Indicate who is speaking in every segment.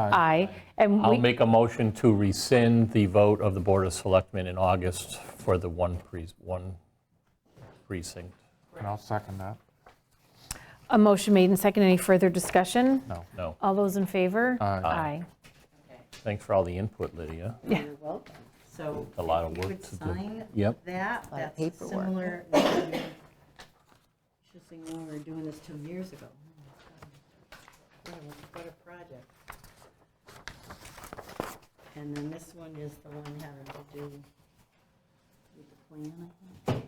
Speaker 1: Aye. And
Speaker 2: I'll
Speaker 1: we,
Speaker 2: make a motion to rescind the vote of the Board of Selectmen in August for the one pre- one precinct.
Speaker 3: And I'll second that.
Speaker 1: a motion made and second. Any further discussion?
Speaker 3: No.
Speaker 2: No,
Speaker 1: All those in favor? Aye.
Speaker 2: thanks for all the input, Lydia.
Speaker 4: You're welcome. So.
Speaker 2: A lot of
Speaker 4: if you
Speaker 2: work
Speaker 4: would
Speaker 2: to do.
Speaker 4: sign
Speaker 2: Yep.
Speaker 4: that,
Speaker 5: Lot of
Speaker 4: that's
Speaker 5: paperwork.
Speaker 4: similar. Just think when we were doing this two years ago. What a- what a project. And then this one is the one having to do with the plan, I think.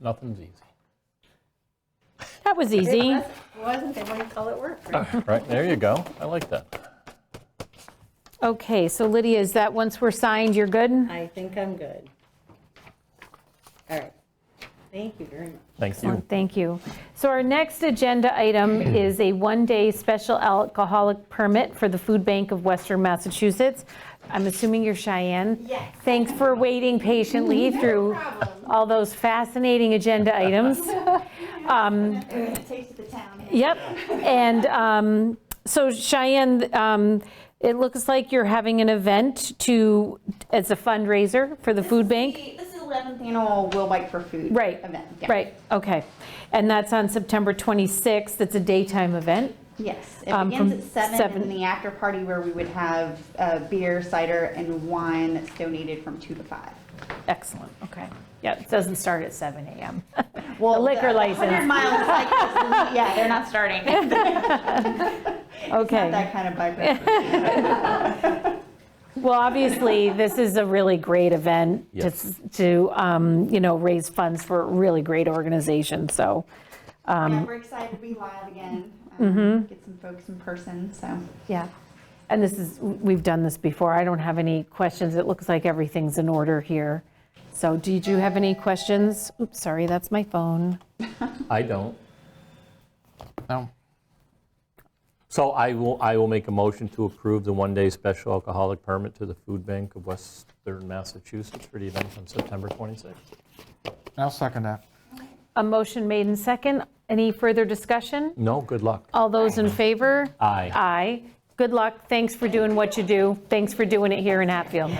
Speaker 2: Nothing's easy.
Speaker 1: That was easy.
Speaker 4: It Wasn't, they wouldn't call it work.
Speaker 5: Uh.
Speaker 4: right?
Speaker 2: Right, there you go. I like that.
Speaker 1: Okay, so Lydia, is that once we're signed, you're good?
Speaker 4: I think I'm good. All right. Thank you very much.
Speaker 2: Thank you. Hmm.
Speaker 1: Excellent, Thank you. So our next agenda item is a one-day special alcoholic permit for the Food Bank of Western Massachusetts. I'm assuming you're Cheyenne? Yes. Thanks for waiting patiently through all those fascinating agenda items.
Speaker 6: taste of the town.
Speaker 1: Yep, and um, so Cheyenne, um, it looks like you're having an event to, as a fundraiser for the food bank?
Speaker 6: This is 11th annual Will Bike for Food
Speaker 1: Right,
Speaker 6: event. yeah.
Speaker 1: right, okay. And that's on September 26th, it's a daytime event?
Speaker 6: Yes. It
Speaker 1: Um,
Speaker 6: begins
Speaker 1: from
Speaker 6: at seven
Speaker 1: seven-
Speaker 6: in the after party where we would have uh, beer, cider, and wine that's donated from two to five.
Speaker 1: Excellent, okay. Yeah, it doesn't start at 7 AM.
Speaker 6: Well,
Speaker 1: The liquor license.
Speaker 6: 100 mile cycles, yeah, they're not starting. It's not
Speaker 1: Okay,
Speaker 6: that kind of bike.
Speaker 1: well, obviously, this is a really great event to
Speaker 2: Yes.
Speaker 1: to, um, you know, raise funds for a really great organization, so. um,
Speaker 6: Yeah, We're excited to be live again.
Speaker 1: mm-hmm.
Speaker 6: um, Get some folks in person, so.
Speaker 1: Yeah, and this is, we've done this before. I don't have any questions. It looks like everything's in order here. So did you have any questions? Oops, sorry, that's my phone.
Speaker 2: I don't.
Speaker 3: No.
Speaker 2: So I will, I will make a motion to approve the one-day special alcoholic permit to the Food Bank of Western Massachusetts for the event on September 26th.
Speaker 3: And I'll second that.
Speaker 1: A motion made in second. Any further discussion?
Speaker 2: No, good luck.
Speaker 1: All those in favor?
Speaker 2: Aye.
Speaker 1: Aye. Good luck. Thanks for doing what you do. Thanks for doing it here in Hatfield.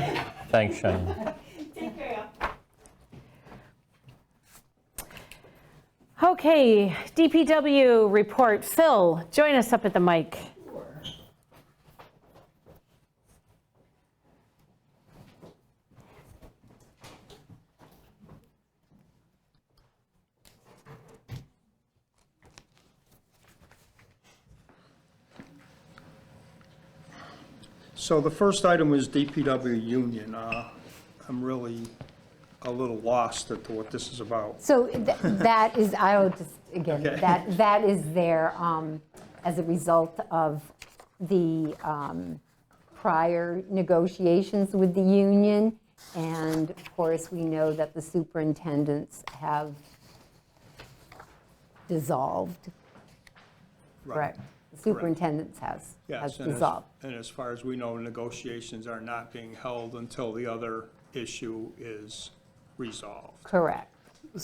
Speaker 2: Thanks, Cheyenne.
Speaker 1: Okay, DPW report. Phil, join us up at the mic.
Speaker 7: So the first item is DPW union. Uh, I'm really a little lost at what this is about.
Speaker 8: So th- that is, I'll just, again,
Speaker 7: Okay.
Speaker 8: that, that is there um, as a result of the um, prior negotiations with the union. And of course, we know that the superintendents have dissolved, correct? The Superintendents has, has
Speaker 7: Yes, and as-
Speaker 8: dissolved.
Speaker 7: And as far as we know, negotiations are not being held until the other issue is resolved.
Speaker 8: Correct,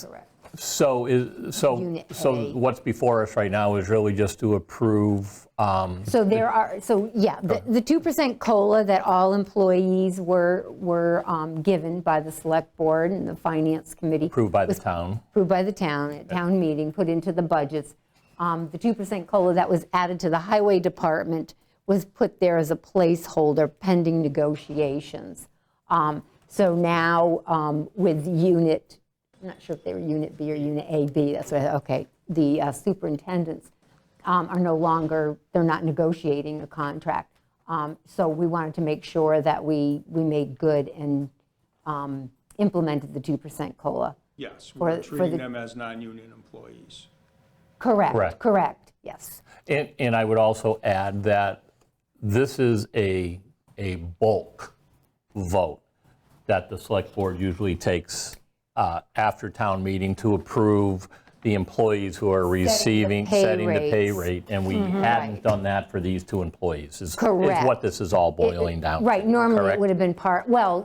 Speaker 8: correct.
Speaker 2: So is, so,
Speaker 8: Unit
Speaker 2: so
Speaker 8: A.
Speaker 2: what's before us right now is really just to approve, um,
Speaker 8: So there are, so yeah, the
Speaker 2: Oh.
Speaker 8: the 2% COLA that all employees were, were um, given by the Select Board and the Finance Committee.
Speaker 2: approved by the town.
Speaker 8: Approved by the town, at town meeting, put into the budgets. Um, The 2% COLA that was added to the Highway Department was put there as a placeholder pending negotiations. Um, So now um, with Unit, I'm not sure if they were Unit B or Unit AB, that's what, okay, the uh, superintendents um, are no longer, they're not negotiating a contract. Um, So we wanted to make sure that we, we made good and um, implemented the 2% COLA.
Speaker 7: Yes,
Speaker 8: For-
Speaker 7: we're
Speaker 8: for
Speaker 7: treating
Speaker 8: the-
Speaker 7: them as non-union employees.
Speaker 2: Correct.
Speaker 8: Correct, correct, yes.
Speaker 2: And, and I would also add that this is a, a bulk vote that the select board usually takes uh, after town meeting to approve the employees who are receiving,
Speaker 8: pay
Speaker 2: setting the pay
Speaker 8: rates. Mm-hmm.
Speaker 2: rate. And we hadn't done that for these two employees. is- Is
Speaker 8: Correct.
Speaker 2: what this is all boiling down to.
Speaker 8: Right, normally it
Speaker 2: correct?
Speaker 8: would have been part, well,